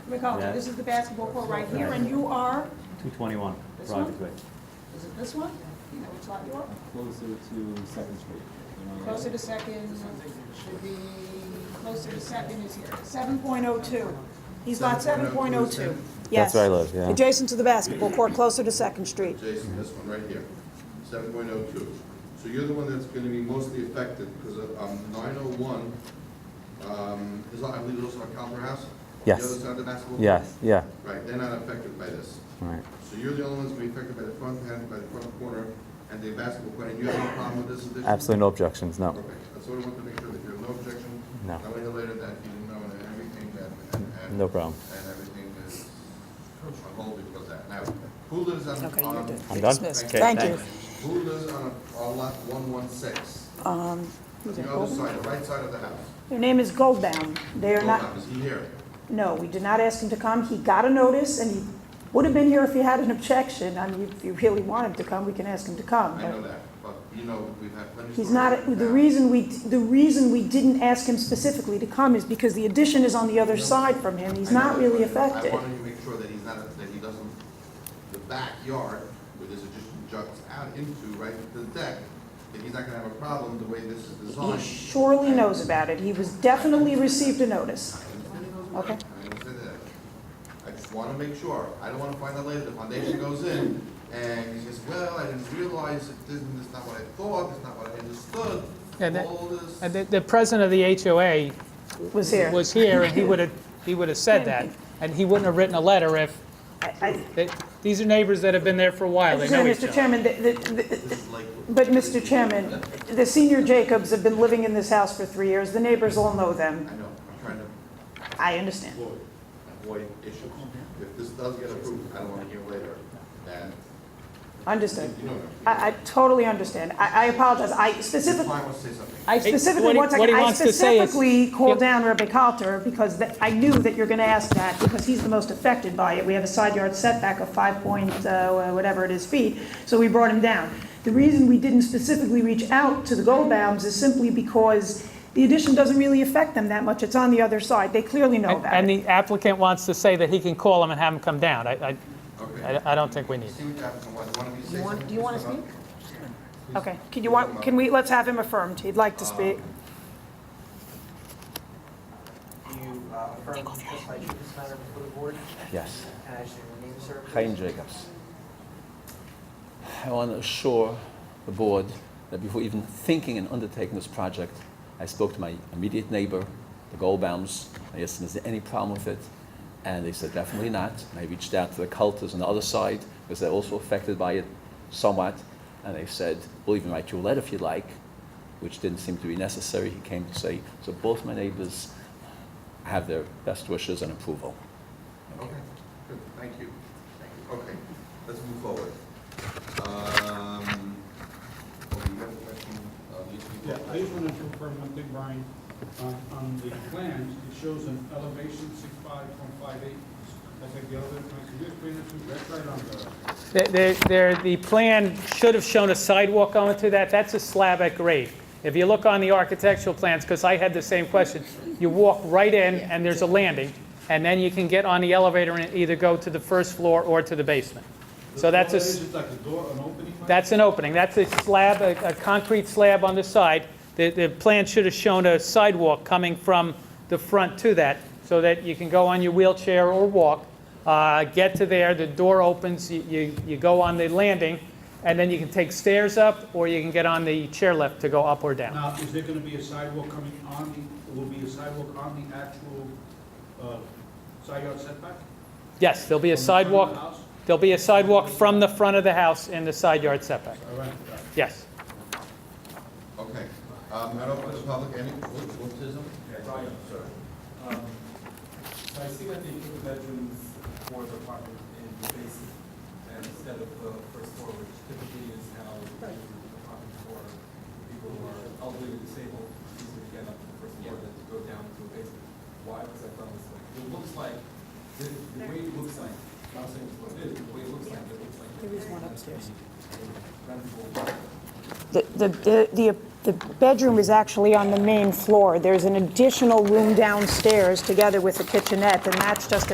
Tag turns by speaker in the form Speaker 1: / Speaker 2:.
Speaker 1: McAuliffe,
Speaker 2: That-
Speaker 1: this is the basketball court right here, and you are,
Speaker 2: Two twenty-one,
Speaker 1: This one?
Speaker 2: Project Way.
Speaker 1: is it this one? You know which lot you are?
Speaker 3: Closer to Second Street. you know,
Speaker 1: Closer to second, should be, closer to second is here, seven point oh two. He's lot seven point oh two. Yes.
Speaker 4: That's where I live, yeah.
Speaker 1: Adjacent to the basketball court, closer to Second Street.
Speaker 5: Jason, this one right here, seven point oh two. So you're the one that's gonna be mostly affected, because, um, nine oh one, um, is, I believe it's also on Calver House?
Speaker 4: Yes.
Speaker 5: The other side of the basketball? court?
Speaker 4: Yes, yeah,
Speaker 5: Right, they're not affected by this.
Speaker 4: right.
Speaker 5: So you're the only ones gonna be affected by the front, hand- by the front corner and the basketball court, and you have no problem with this addition?
Speaker 4: Absolutely no objections, no.
Speaker 5: Perfect, that's what I wanted to make sure, that you have no objection?
Speaker 4: No.
Speaker 5: That way later that you know that everything that, and, and.
Speaker 4: No problem.
Speaker 5: And everything is on hold because of that. Now, who lives on,
Speaker 6: Okay,
Speaker 5: on-
Speaker 6: you're done.
Speaker 4: I'm done?
Speaker 6: Dismissed.
Speaker 4: Okay,
Speaker 6: Thank you.
Speaker 5: Who lives on, a- on lot one one six? On
Speaker 1: Um,
Speaker 5: the other side, the right side of the house.
Speaker 1: Their name is Goldbaum. They are
Speaker 5: Hold
Speaker 1: not,
Speaker 5: on, Is he here?
Speaker 1: No, we did not ask him to come. He got a notice, and he would have been here if he had an objection. I mean, if you really want him to come, we can ask him to come.
Speaker 5: I know that, but you know, we've had plenty. of
Speaker 1: He's
Speaker 5: stories
Speaker 1: not,
Speaker 5: like
Speaker 1: the
Speaker 5: that.
Speaker 1: reason we, the reason we didn't ask him specifically to come is because the addition is on the other side from him. He's
Speaker 5: I know
Speaker 1: not
Speaker 5: that,
Speaker 1: really
Speaker 5: but
Speaker 1: affected.
Speaker 5: I wanted to make sure that he's not, that he doesn't, the backyard, where this addition juts out into, right, the deck, that he's not gonna have a problem the way this is
Speaker 1: He
Speaker 5: designed.
Speaker 1: surely knows about it. He was definitely received a notice.
Speaker 5: I understand he knows about
Speaker 1: Okay.
Speaker 5: it. I understand that. I just wanna make sure, I don't wanna find out later, the foundation goes in, and he says, well, I didn't realize, it didn't, it's not what I thought, it's not what I understood,
Speaker 6: Yeah, that-
Speaker 5: all this.
Speaker 6: And Uh, the, the president of the HOA
Speaker 1: Was here.
Speaker 6: was here, and he would have, he would have said that, and he wouldn't have written a letter if,
Speaker 1: I- I-
Speaker 6: they- these are neighbors that have been there for a while, they know each
Speaker 1: Mr.
Speaker 6: other.
Speaker 1: Chairman, the- the- the-
Speaker 5: This is Lakewood.
Speaker 1: But, Mr. Chairman, the senior Jacobs have been living in this house for three years. The neighbors all know them.
Speaker 5: I know, I'm trying to
Speaker 1: I understand.
Speaker 5: avoid, avoid issues. If this does get approved, I don't wanna hear later, and,
Speaker 1: Understood.
Speaker 5: you know, what I mean.
Speaker 1: I, I totally understand. I, I apologize. I
Speaker 5: if
Speaker 1: specifically,
Speaker 5: I want to say something,
Speaker 1: I
Speaker 6: what
Speaker 1: specifically,
Speaker 6: he-
Speaker 1: one
Speaker 6: what
Speaker 1: second,
Speaker 6: he
Speaker 1: I
Speaker 6: wants to say is-
Speaker 1: specifically called
Speaker 6: Yep.
Speaker 1: down Rebbe Halter because that- I knew that you're gonna ask that because he's the most affected by it. We have a side yard setback of five point, uh, whatever it is feet, so we brought him down. The reason we didn't specifically reach out to the Goldbaums is simply because the addition doesn't really affect them that much. It's on the other side. They clearly know
Speaker 6: And-
Speaker 1: about
Speaker 6: And
Speaker 1: it.
Speaker 6: the applicant wants to say that he can call them and have them come down. I, I-
Speaker 5: okay?
Speaker 6: I, I don't think we need.
Speaker 5: See what happens, and what, you want me to say something?
Speaker 1: do you wanna
Speaker 5: Please come up.
Speaker 1: Okay, can you want, can we, let's have him affirmed. He'd like to speak.
Speaker 7: Do you uh, affirm to testify to this matter before the board?
Speaker 8: Yes.
Speaker 7: And I state your name, sir? please?
Speaker 8: Chaim Jacobs. I want to assure the board that before even thinking and undertaking this project, I spoke to my immediate neighbor, the Goldbaums. I asked them, is there any problem with it? And they said, definitely not. And I reached out to the cultists on the other side, because they're also affected by it somewhat. And they said, we'll even write you a letter if you like, which didn't seem to be necessary. He came to say, so both my neighbors have their best wishes and approval.
Speaker 5: Okay, good, thank you. Thank you. Okay, let's move forward. Um, oh, you have a question, uh, Lisa?
Speaker 9: Yeah, I just wanted to confirm one thing, Brian. On on the plans, it shows an elevation six five point five eight. That's like the elevation, can you explain it to me? That's right on the,
Speaker 6: There- There, there- the plan should have shown a sidewalk going through that, that's a slab at grade. If you look on the architectural plans, because I had the same question, you walk right in and there's a landing, and then you can get on the elevator and either go to the first floor or to the basement. So that's a,
Speaker 9: All that is,
Speaker 6: s-
Speaker 9: it's like a door, an opening? like-
Speaker 6: that's an opening, that's a slab, a a concrete slab on the side. The, the plan should have shown a sidewalk coming from the front to that, so that you can go on your wheelchair or walk, uh, get to there, the door opens, you- you, you go on the landing, and then you can take stairs up, or you can get on the chairlift to go up or down.
Speaker 9: Now, is there gonna be a sidewalk coming on the, will be a sidewalk on the actual uh, side yard setback?
Speaker 6: Yes, there'll be a
Speaker 9: From the front of the
Speaker 6: sidewalk,
Speaker 9: house?
Speaker 6: there'll be a sidewalk from the front of the house in the side yard setback,
Speaker 9: All right, all right.
Speaker 6: yes.
Speaker 5: Okay, um, I don't, this public, any, what, what is it?
Speaker 10: Brian, sir. Um, I see that they put the bedrooms for the apartment in the basement and instead of the first floor, which typically is how the apartment for people who are elderly or disabled, easier to get up to the first floor than to go down to a basement. Why was that done this way? It looks like, the, the way it looks like, I'm not saying it's what it is, but the way it looks like, it looks like. There is one upstairs. Rentable.
Speaker 1: The, the, the, the bedroom is actually on the main floor. There's an additional room downstairs together with a kitchenette, and that's just